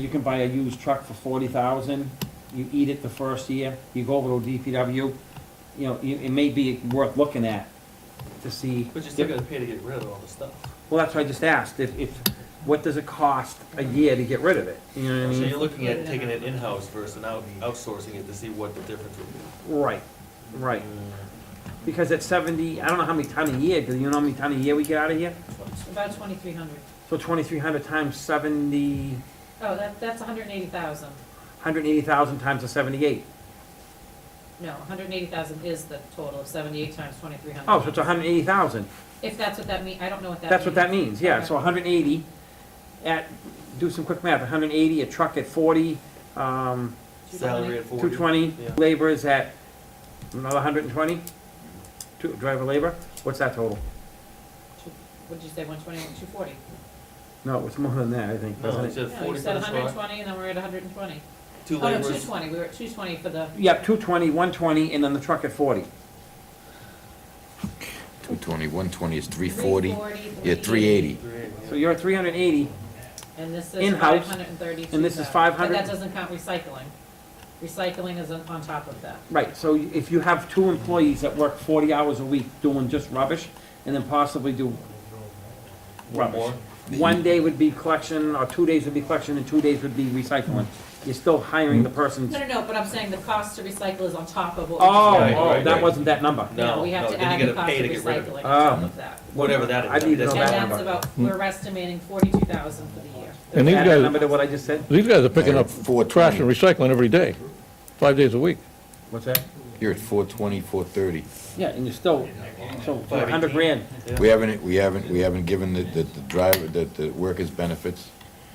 You can buy a used truck for forty thousand, you eat it the first year, you go over to DPW, you know, it, it may be worth looking at to see. But you're still gonna pay to get rid of all the stuff. Well, that's why I just asked, if, if, what does it cost a year to get rid of it? You know So what I you're mean? looking at taking it in-house versus out, outsourcing it to see what the difference would be. Mm. Right, right, because at seventy, I don't know how many ton a year, do you know how many ton a year we get out of here? About twenty-three hundred. So twenty-three hundred times seventy, Oh, that, that's hundred and eighty thousand. hundred and eighty thousand times the seventy-eight. No, hundred and eighty thousand is the total of seventy-eight times twenty-three hundred. Oh, so it's hundred and eighty thousand. If that's what that mean, I don't know what that means. That's what that means, yeah, Okay. so hundred and eighty at, do some quick math, hundred and eighty, a truck at forty, um, Salary at forty. two twenty, Yeah. labor is at another hundred and twenty? Two, driver labor, what's that total? What'd you say, one twenty, two forty? No, it's more than that, I think, No, doesn't it's it? at No, you forty for said the hundred and truck, twenty, and then we're at hundred and twenty. two Oh, no, two laborers, twenty, we were at two twenty for the, Yep, two twenty, one twenty, and then the truck at forty. 220, 120 is three 340. forty, Yeah, 380. three, yeah. So you're at three hundred and eighty, And this is five In-house, hundred and thirty-two. and this is 500. But that doesn't count recycling. Recycling is on on top of that. right, so if you have two employees that work forty hours a week doing just rubbish, and then possibly do One rubbish. more. One day would be collection, or two days would be collection, and two days would be recycling. You're still hiring the person. No, no, no, but I'm saying the cost to recycle is on top of what. we Oh, just- Right, oh, right, that right. wasn't that number. No, we have no, to then add you the gotta cost pay of to get rid of it. recycling on top Oh. of that. Whatever that is. I need that's to And know that. not- that's about, Hmm. we're estimating forty-two thousand for the year. And these Add that number guys, to what I just said? these guys are picking up Four trash and recycling every day, five days a week. What's that? You're at 420, 430. Yeah, and you're still, so for a hundred grand, We haven't, we haven't, we haven't given the, the the driver, the, the workers benefits.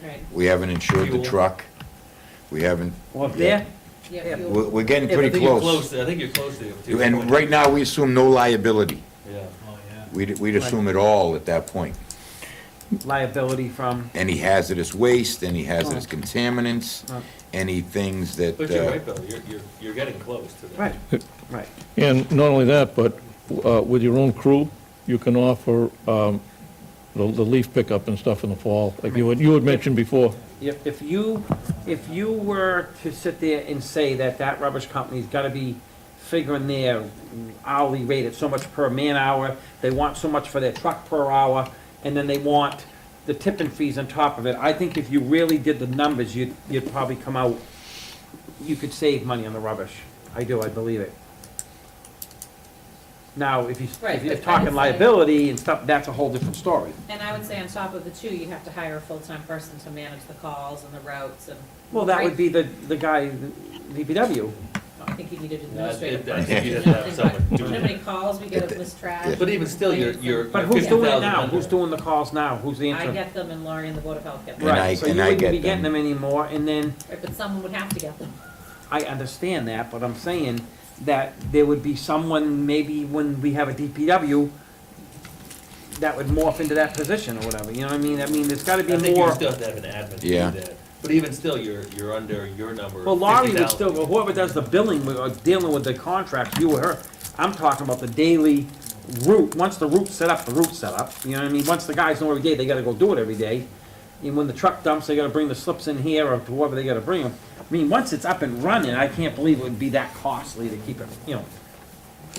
Right, We haven't insured the Fuel. truck. We haven't, well, if there, yeah, Yeah, fuel, we're, we're getting Yeah, but pretty then you You're close. close, to- I think you're close to. it, too. And right now, we assume no liability. Yeah. Oh, We'd, we'd assume it all at that point. liability from, Any hazardous waste, any hazardous contaminants, Right. any things Oh. that, But you're uh, right, Bill, you're, you're, you're getting close to that. right, right. And not only that, but uh, with your own crew, you can offer um, the the leaf pickup and stuff in the fall, like you had, you had mentioned before. If, if you, if you were to sit there and say that that rubbish company's gotta be figuring their hourly rate at so much per man hour, they want so much for their truck per hour, and then they want the tipping fees on top of it, I think if you really did the numbers, you'd, you'd probably come out, you could save money on the rubbish. I do, I believe it. Now, if you, Right, if you're but I would talking say- liability and stuff, that's a whole different story. and I would say on top of the two, you have to hire a full-time person to manage the calls and the routes and. Well, that would Right. be the, the guy, the DPW. I think you needed Yeah, I administrative. think- I person. think you You just know, have think someone about do How it. many calls we get of this trash. But even still, you're, you're. But who's doing it now? 50,000 Who's doing the calls now? Who's the I interim? get them and Laurie and the Board of Health get them. And I- Right, so you and I wouldn't be get getting them. them anymore, and then, Right, But someone would have to get them. I understand that, but I'm saying that there would be someone, maybe when we have a DPW, that would morph into that position or whatever, you know what I mean? I mean, there's gotta I be think you more, still have to have an admin to do Yeah. that. But even still, you're, you're under your number. well, Laurie would 50,000. still, go. whoever does the billing, with- or dealing with the contracts, you or her, I'm talking about the daily route, once the route's set up, the route's set up, you know what I mean? Once the guys know every day, they gotta go do it every day. And when the truck dumps, they gotta bring the slips in here or to wherever they gotta bring them. I mean, once it's up and running, I can't believe it would be that costly to keep it, you know.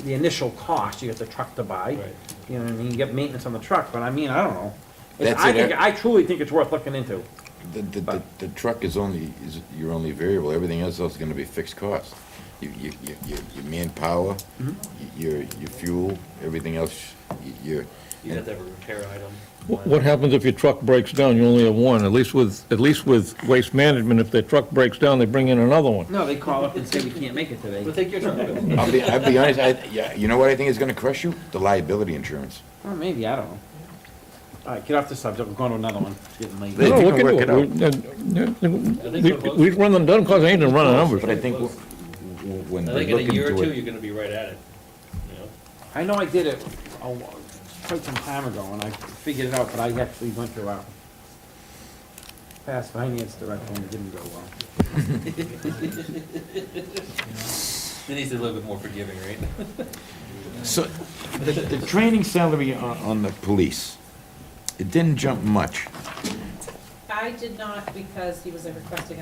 The initial cost, you get the truck to buy, Right. you know what I mean, you get maintenance on the truck, but I mean, I don't know. It's- That's I it, think, eh? I truly think it's worth looking into. The, the, the- the truck is only, is your only variable, everything else is gonna be fixed cost. You, you, you- you, your manpower, y- Mm-hmm. your, your fuel, everything else, y- your, You have to have a repair item. Wh- What happens if your truck breaks down, you only have one? At least with, at least with waste management, if their truck breaks down, they bring in another one. No, they call up and say, we can't make it today. But take your truck, Bill. I'll be, I'll be honest, I, yeah, you know what I think is gonna crush you? The liability insurance. Or maybe, I don't know. All right, get off the subject, we're going to another one. It's getting late. They- No, they we can can do work it out. We- we're close. We run them, doesn't cost anything to run the numbers. But I think w- w- when I we're think in a looking year or to two, it, you're gonna be right at it, you know? I know I did it a wa- quite some time ago, and I figured it out, but I actually went through our past finance director, and it didn't go well. It needs to be a little bit more forgiving, right? so, the, the training salary on, on the police, it didn't jump much. I I did not because he was a requesting